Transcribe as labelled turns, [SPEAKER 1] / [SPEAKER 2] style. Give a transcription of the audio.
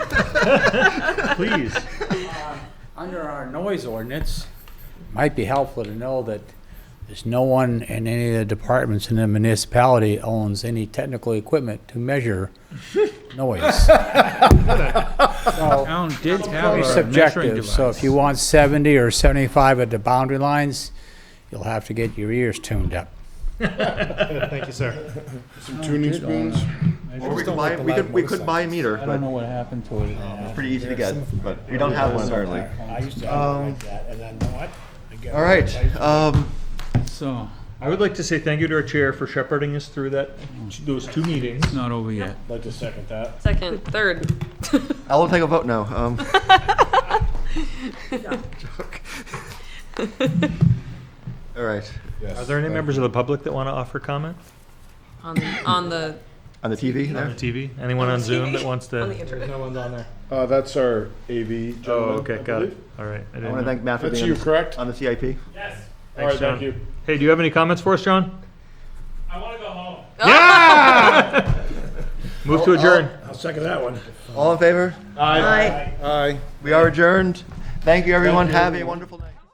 [SPEAKER 1] Please.
[SPEAKER 2] Under our noise ordinance, might be helpful to know that there's no one in any of the departments in the municipality owns any technical equipment to measure noise. So,
[SPEAKER 3] Town did have
[SPEAKER 2] very
[SPEAKER 3] a measuring
[SPEAKER 2] subjective,
[SPEAKER 3] device.
[SPEAKER 2] so if you want 70 or 75 at the boundary lines, you'll have to get your ears tuned up.
[SPEAKER 4] Thank you, sir.
[SPEAKER 5] Some tuning spoons.
[SPEAKER 6] Or we could buy, we could, we could buy a meter,
[SPEAKER 7] I don't know
[SPEAKER 6] but
[SPEAKER 7] what happened to it.
[SPEAKER 6] it's pretty easy to get, but we don't have one currently.
[SPEAKER 5] I used to have
[SPEAKER 3] Um,
[SPEAKER 5] it like that, and then what?
[SPEAKER 6] All right, um,
[SPEAKER 3] So,
[SPEAKER 1] I would like to say thank you to our chair for shepherding us through that, those two meetings.
[SPEAKER 3] it's not over yet.
[SPEAKER 5] Like to second that.
[SPEAKER 8] Second, third.
[SPEAKER 6] I will take a vote now. Um, all right,
[SPEAKER 1] Are there any members of the public that want to offer comment
[SPEAKER 8] On, the- on the,
[SPEAKER 6] on the TV
[SPEAKER 1] on the
[SPEAKER 6] there?
[SPEAKER 1] TV? Anyone on Zoom that wants
[SPEAKER 8] on the
[SPEAKER 1] to?
[SPEAKER 4] There's
[SPEAKER 8] internet.
[SPEAKER 4] no one's on there.
[SPEAKER 5] Uh, that's our AV gentleman.
[SPEAKER 1] Oh, okay,
[SPEAKER 5] I
[SPEAKER 1] got it.
[SPEAKER 5] believe.
[SPEAKER 1] All right. I
[SPEAKER 6] I
[SPEAKER 1] didn't
[SPEAKER 6] want
[SPEAKER 1] know.
[SPEAKER 6] to thank Matt for
[SPEAKER 5] That's
[SPEAKER 6] being
[SPEAKER 5] you,
[SPEAKER 6] on the-
[SPEAKER 1] Uh,
[SPEAKER 5] correct?
[SPEAKER 6] on the CIP.
[SPEAKER 5] All right,
[SPEAKER 1] Sean.
[SPEAKER 5] thank you.
[SPEAKER 1] Hey, do you have any comments for us, John? I want to go home. Yeah! Move to adjourn.
[SPEAKER 5] I'll second that one.
[SPEAKER 6] All in favor?
[SPEAKER 8] Oh, Aye.
[SPEAKER 5] Aye.
[SPEAKER 6] We are adjourned. Thank you, everyone. Have a wonderful night.